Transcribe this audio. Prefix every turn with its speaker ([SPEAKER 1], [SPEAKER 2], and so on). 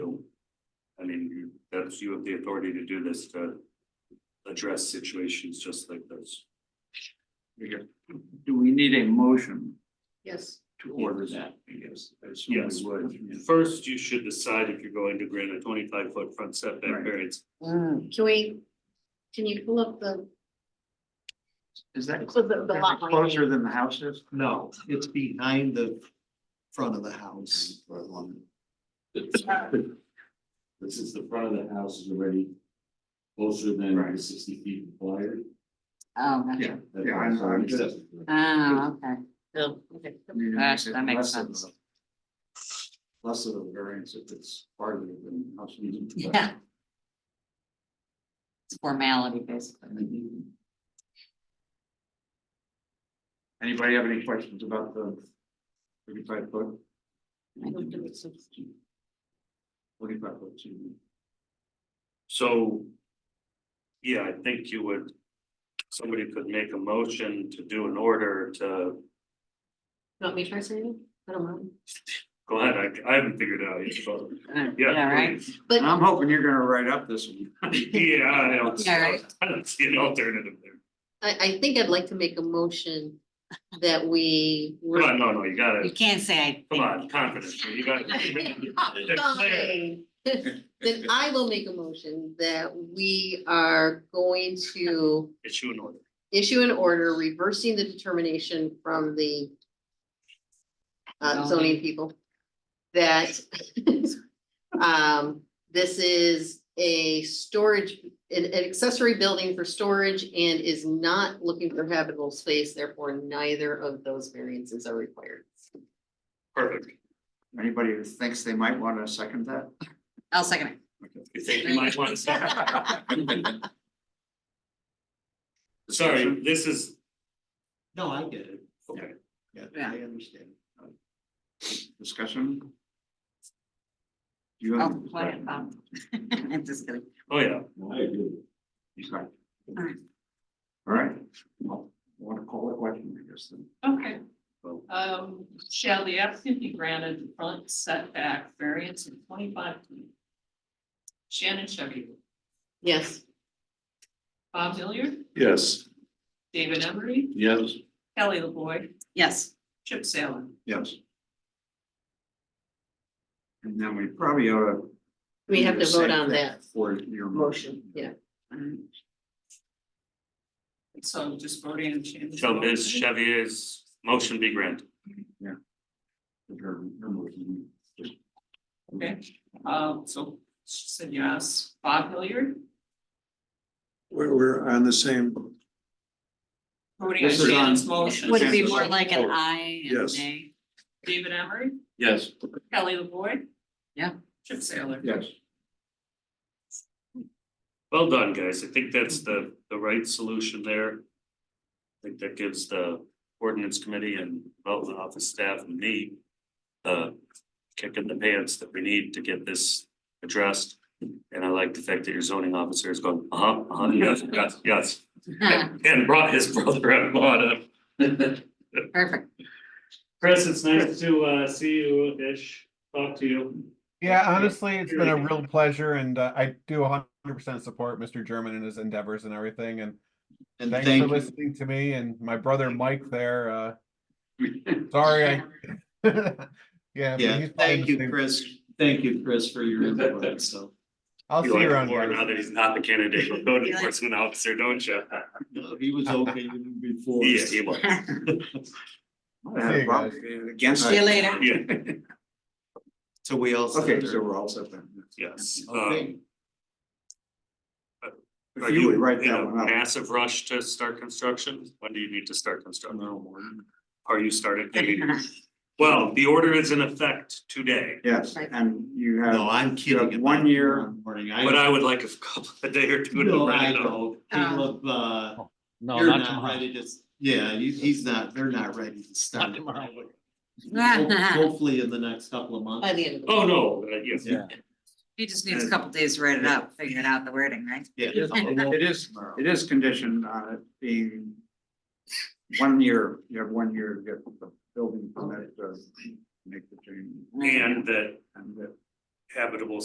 [SPEAKER 1] gives you the authority to do this to address situations just like those.
[SPEAKER 2] Do we need a motion
[SPEAKER 3] Yes.
[SPEAKER 2] to order that? Yes.
[SPEAKER 1] Yes. First, you should decide if you're going to grant a twenty-five foot front setback
[SPEAKER 2] Right.
[SPEAKER 1] variance.
[SPEAKER 3] Can we, can you pull up the,
[SPEAKER 2] Is that
[SPEAKER 3] So the- the lot line
[SPEAKER 2] closer than the house is?
[SPEAKER 4] No, it's behind the front of the house. or along-
[SPEAKER 5] But since the front of the house is already closer than the sixty feet required.
[SPEAKER 6] Oh, gotcha.
[SPEAKER 2] Yeah.
[SPEAKER 5] that
[SPEAKER 2] Yeah, I'm-
[SPEAKER 5] house
[SPEAKER 2] I'm
[SPEAKER 5] already
[SPEAKER 2] just-
[SPEAKER 5] accepted.
[SPEAKER 6] Oh, okay. Mm-hmm. Cool.
[SPEAKER 3] okay,
[SPEAKER 6] Gosh, that
[SPEAKER 2] Less
[SPEAKER 6] makes
[SPEAKER 2] of
[SPEAKER 6] sense.
[SPEAKER 2] a- Less of a variance if it's farther than the house. is.
[SPEAKER 6] Yeah. It's formality, basically.
[SPEAKER 2] Anybody have any questions about the thirty-five foot?
[SPEAKER 6] I don't think
[SPEAKER 2] Forty-five foot, excuse me.
[SPEAKER 1] So. Yeah, I think you would, somebody could make a motion to do an order to,
[SPEAKER 3] want me to try something? I don't mind.
[SPEAKER 1] go ahead, I, I haven't figured it out yet, but.
[SPEAKER 6] Uh, Um,
[SPEAKER 1] Yeah,
[SPEAKER 6] right.
[SPEAKER 1] please.
[SPEAKER 2] And I'm hoping you're gonna write up this one.
[SPEAKER 1] Yeah, I don't,
[SPEAKER 6] Yeah, right.
[SPEAKER 1] I don't see an alternative there.
[SPEAKER 3] I, I think I'd like to make a motion that we.
[SPEAKER 1] Come on, no, no, you
[SPEAKER 6] You
[SPEAKER 1] gotta,
[SPEAKER 6] can't say I.
[SPEAKER 1] come on, confidence, you gotta.
[SPEAKER 3] Fine. Then I will make a motion that we are going to
[SPEAKER 1] Issue an order.
[SPEAKER 3] issue an order reversing the determination from the uh, zoning people that um, this is a storage, an, an accessory building for storage and is not looking for habitable space, therefore neither of those variances are required.
[SPEAKER 1] Perfect.
[SPEAKER 2] Anybody who thinks they might wanna second that?
[SPEAKER 6] I'll second it.
[SPEAKER 1] You think you might want to say? Sorry, this is,
[SPEAKER 4] No, I get it.
[SPEAKER 1] okay,
[SPEAKER 4] Yeah,
[SPEAKER 6] Yeah.
[SPEAKER 4] I understand.
[SPEAKER 2] Discussion? Do you
[SPEAKER 6] Oh,
[SPEAKER 2] have?
[SPEAKER 6] what, um, I'm just kidding.
[SPEAKER 1] oh yeah,
[SPEAKER 5] I agree.
[SPEAKER 2] He's not. All
[SPEAKER 6] Alright.
[SPEAKER 2] right, well, I want to call it question, I guess, then.
[SPEAKER 7] Okay,
[SPEAKER 2] Well-
[SPEAKER 7] um, shall the applicant be granted the front setback variance of twenty-five feet? Shannon Chevy,
[SPEAKER 3] Yes,
[SPEAKER 7] Bob Hilliard,
[SPEAKER 5] Yes.
[SPEAKER 7] David Emery,
[SPEAKER 5] Yes.
[SPEAKER 7] Kelly LaVoy,
[SPEAKER 6] Yes,
[SPEAKER 7] Chip Saylor.
[SPEAKER 2] Yes. And then we probably ought to.
[SPEAKER 3] we
[SPEAKER 2] do
[SPEAKER 3] have
[SPEAKER 2] the
[SPEAKER 3] to
[SPEAKER 2] same
[SPEAKER 3] vote on
[SPEAKER 2] thing
[SPEAKER 3] that
[SPEAKER 2] For your
[SPEAKER 3] motion, yeah.
[SPEAKER 6] um,
[SPEAKER 7] So just voting on Shannon's.
[SPEAKER 1] so Ms.
[SPEAKER 7] motion.
[SPEAKER 1] Chevier's motion be granted.
[SPEAKER 2] Your, your motion.
[SPEAKER 7] Okay, um, so she said yes, Bob Hilliard,
[SPEAKER 8] We're, we're on the same,
[SPEAKER 7] voting on
[SPEAKER 2] This is on-
[SPEAKER 7] Shannon's motion,
[SPEAKER 6] Would it be more like
[SPEAKER 1] Oh,
[SPEAKER 6] an I and
[SPEAKER 8] Yes.
[SPEAKER 6] a?
[SPEAKER 7] David Emery,
[SPEAKER 5] Yes.
[SPEAKER 7] Kelly LaVoy.
[SPEAKER 6] Yeah.
[SPEAKER 7] Chip Saylor.
[SPEAKER 2] Yes.
[SPEAKER 1] Well done, guys. I think that's the, the right solution there. I think that gives the ordinance committee and development office staff and me the kick in the pants that we need to get this addressed. And I like the fact that your zoning officer is going, uh-huh, uh-huh, yes, yes, yes, and and brought his brother-in-law to
[SPEAKER 6] Perfect.
[SPEAKER 1] Chris, it's nice to uh see you ish, talk to you.
[SPEAKER 9] Yeah, honestly, it's been a
[SPEAKER 1] Really.
[SPEAKER 9] real pleasure, and uh, I do 100% support Mr. German and his endeavors and everything. And
[SPEAKER 4] And
[SPEAKER 9] thanks for
[SPEAKER 4] thank you.
[SPEAKER 9] listening to me and my brother Mike there. Uh, sorry, I. yeah, but
[SPEAKER 4] Yeah,
[SPEAKER 9] he's probably
[SPEAKER 4] thank
[SPEAKER 9] the
[SPEAKER 4] you,
[SPEAKER 9] same-
[SPEAKER 4] Chris. Thank you, Chris, for your input, so.
[SPEAKER 9] I'll see
[SPEAKER 1] You
[SPEAKER 9] you
[SPEAKER 1] like
[SPEAKER 9] around.
[SPEAKER 1] him more
[SPEAKER 9] guys.
[SPEAKER 1] now that he's not the candidate for code enforcement officer, don't you?
[SPEAKER 4] No, He was okay with it before.
[SPEAKER 1] Yeah, he was,
[SPEAKER 9] See you guys.
[SPEAKER 2] Against.
[SPEAKER 6] See you later.
[SPEAKER 1] yeah,
[SPEAKER 4] So we all. said
[SPEAKER 2] Okay,
[SPEAKER 4] there.
[SPEAKER 2] so we're all set then.
[SPEAKER 1] yes.
[SPEAKER 4] Okay.
[SPEAKER 1] Um,
[SPEAKER 2] If
[SPEAKER 1] Are
[SPEAKER 2] you would
[SPEAKER 1] you
[SPEAKER 2] write
[SPEAKER 1] in
[SPEAKER 2] that
[SPEAKER 1] a
[SPEAKER 2] one up.
[SPEAKER 1] massive rush to start construction? When do you need to start construction? Are you started? Well, the order is in effect today,
[SPEAKER 2] Yes,
[SPEAKER 3] Right.
[SPEAKER 2] and you
[SPEAKER 4] No,
[SPEAKER 2] have,
[SPEAKER 4] I'm
[SPEAKER 2] you
[SPEAKER 4] kidding.
[SPEAKER 2] have one
[SPEAKER 4] about
[SPEAKER 2] year-
[SPEAKER 4] tomorrow Morning, I.
[SPEAKER 1] but I would like a couple, a day or two to
[SPEAKER 4] No,
[SPEAKER 1] write
[SPEAKER 4] I
[SPEAKER 1] it up.
[SPEAKER 4] know,
[SPEAKER 6] Um,
[SPEAKER 4] Caleb, uh,
[SPEAKER 10] No,
[SPEAKER 4] you're
[SPEAKER 10] not
[SPEAKER 4] not
[SPEAKER 10] tomorrow.
[SPEAKER 4] ready to, s- yeah, he- he's not, they're not ready to start.
[SPEAKER 10] tomorrow.
[SPEAKER 4] Ho- Hopefully in the next couple of months.
[SPEAKER 3] by the end of the.
[SPEAKER 1] Oh, no, uh, yes.
[SPEAKER 10] Yeah.
[SPEAKER 6] He just needs a couple days to write it out, figuring out the wording, right?
[SPEAKER 4] Yeah.
[SPEAKER 2] it is,
[SPEAKER 4] Tomorrow.
[SPEAKER 2] it is conditioned on it being one year, you have one year to get the building permit to make the change.
[SPEAKER 1] And that
[SPEAKER 2] And uh, that
[SPEAKER 1] habitable